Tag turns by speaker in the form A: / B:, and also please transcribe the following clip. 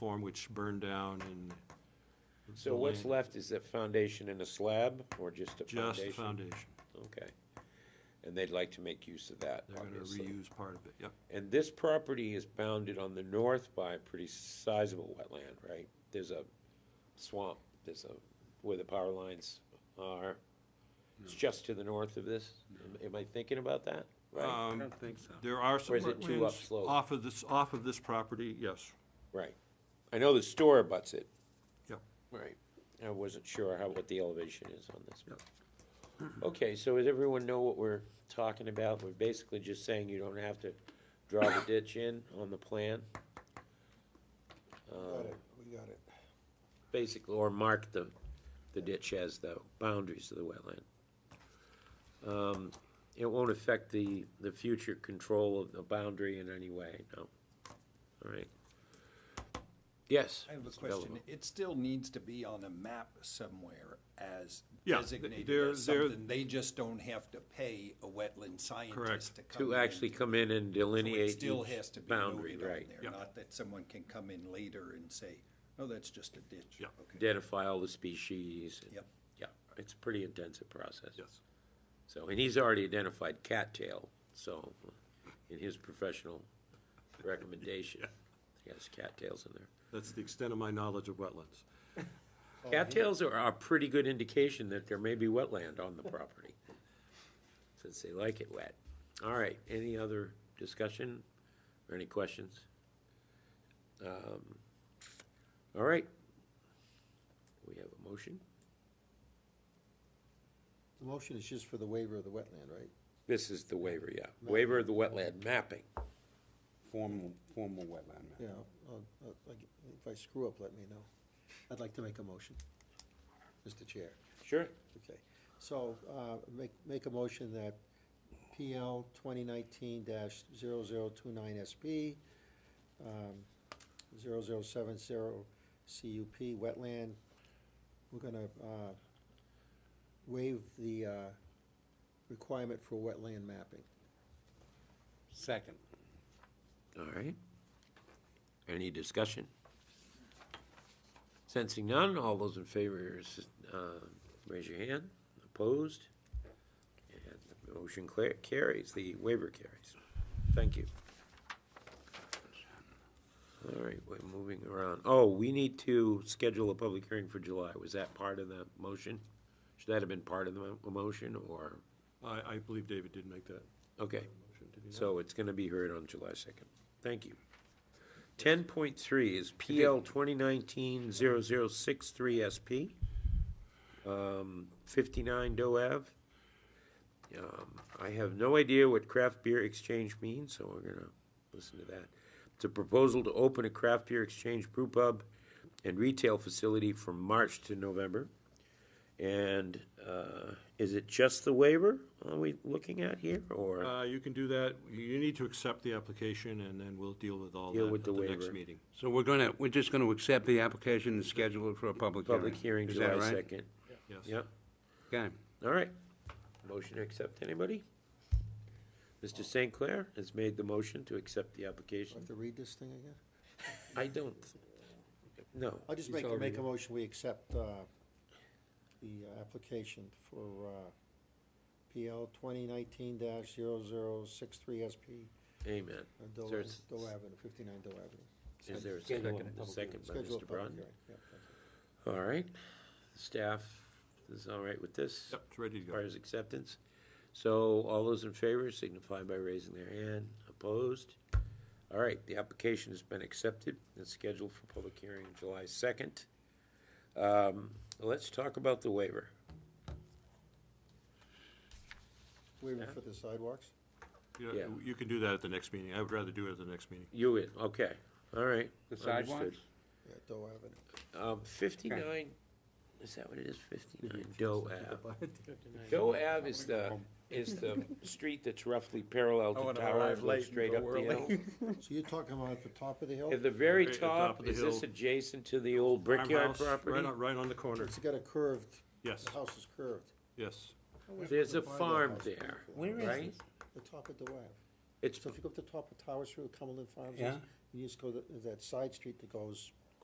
A: form which burned down and
B: So what's left is that foundation and a slab, or just a
A: just the
B: foundation?
A: foundation.
B: Okay. And they'd like to make use of that,
A: They're gonna
B: obviously.
A: reuse part of it, yep.
B: And this property is bounded on the north by a pretty sizable wetland, right? There's a swamp, there's a, where the power lines are. It's just to the north of this? Am- Am I thinking about that? Right,
A: Um,
C: don't think so.
A: There are some
B: Or is it too
A: wetlands
B: upslope?
A: off of this, off of this property, yes.
B: right. I know the store abuts it.
A: Yep.
B: Right. I wasn't sure how, what the elevation is on this. Okay, so does everyone know what we're talking about? We're basically just saying you don't have to draw the ditch in on the plan,
D: Got it, we got it.
B: basically, or mark the, the ditch as the boundaries of the wetland. Um, It won't affect the, the future control of the boundary in any way, no? All right. Yes?
E: I have a
B: Mr.
E: question.
B: Belleville.
E: It still needs to be on a map somewhere as
A: Yeah,
E: designated
A: they're-
E: as
A: they're-
E: something. They just don't have to pay a wetland
A: Correct.
E: scientist to come in.
B: To actually come in and
E: So it
B: delineate
E: still
B: each
E: has to be
B: boundary,
E: noted on
B: right?
A: Yeah.
E: there, not that someone can come in later and say, oh, that's just a ditch.
A: Yeah.
E: Okay.
B: identify all the species.
E: Yep.
B: Yeah, it's a pretty intensive process.
A: Yes.
B: So, and he's already identified cattail, so, in his professional recommendation, yes, cattails in there.
A: That's the extent of my knowledge of wetlands.
B: Oh, Cattails are a pretty good indication that there may be wetland on the property, since they like it wet. All right, any other discussion or any questions? Um, All right. We have a motion?
D: The motion is just for the waiver of the wetland, right?
B: This is the waiver, yeah. Waiver of the wetland mapping.
C: Formal, formal wetland map.
D: Yeah, I'll- I'll- I'll get- if I screw up, let me know. I'd like to make a motion, Mr. Chair.
B: Sure.
D: Okay, so, uh, make, make a motion that PL twenty nineteen 29 SP, um, 0070 CUP wetland, we're gonna, uh, waive the, uh, requirement for wetland mapping.
C: Second.
B: All right. Any discussion? Sensing none, all those in favor, s- uh, raise your hand. Opposed? And the motion clear- carries, the waiver carries. Thank you. All right, we're moving around. Oh, we need to schedule a public hearing for July. Was that part of the motion? Should that have been part of the mo- motion, or?
A: I, I believe David did make that
B: Okay.
A: motion, did he not?
B: So it's gonna be heard on July second. Thank you. Ten point three is PL twenty nineteen zero zero six three SP. Um, fifty-nine Doe Ave. Um, I have no idea what craft beer exchange means, so we're gonna listen to that. It's a proposal to open a craft beer exchange brew pub and retail facility from March to November. And, uh, is it just the waiver are we looking at here, or?
A: Uh, you can do that. You need to accept the application and then we'll deal with all
B: Deal
A: that
B: with
A: at the
B: the
A: next
B: waiver.
A: meeting.
C: So we're gonna, we're just gonna accept the application and schedule it for a public hearing?
B: Public hearing
C: Is that
B: July
C: right?
B: second.
A: Yes.
B: Yeah,
C: Okay.
B: all right. Motion to accept, anybody? Mr. St. Clair has made the motion to accept the
D: Do I have
B: application.
D: to read this thing again?
B: I don't, no.
D: I'll just make, make a motion, we accept, uh, the application for, uh, PL twenty nineteen 63 SP,
B: Amen.
D: uh,
B: Is
D: Doe
B: there a s-
D: Doe Avenue, fifty-nine Doe Avenue.
B: Is there a
C: Schedule a
B: second,
C: public
B: second by
D: Schedule
B: Mr.
D: a public
B: Braun?
D: hearing, yeah, that's it.
B: All right, staff is all right with this?
A: Yep, it's ready to go.
B: Requires acceptance. So all those in favor signify by raising their hand. Opposed? All right, the application has been accepted. It's scheduled for public hearing on July 2nd. Um, Let's talk about the waiver.
D: Waiver for the sidewalks?
A: You know,
B: Yeah.
A: You can do that at the next meeting. I would rather do it at the next meeting.
B: You in, okay, all right.
C: The
B: understood.
C: sidewalks?
D: Yeah, Doe Avenue.
B: Um, 59, is that what it is, 59 Doe Ave? Doe Ave is the, is the street that's roughly parallel
E: I
B: to
E: wanna
B: Tower
E: arrive
B: Oh, and goes
E: late and
B: straight
E: go
B: up the hill.
E: early.
D: So you're talking about at the top of the hill?
B: Oh. At the very
A: Very at the top
B: top,
A: of the
B: is this
A: hill.
B: adjacent to the old brickyard
A: Farmhouse, Right
B: property?
A: on, right on the corner.
D: It's got a curved,
A: Yes,
D: the house is curved.
A: yes.
B: There's a
D: By the
B: farm
D: house,
B: there,
D: beautiful.
F: Where is
B: right?
F: this?
D: The top of Doe Ave.
B: It's,
D: So if you go up the top of Towers Road, Cumberland Farms,
C: Yeah.
D: you just go to that side street that goes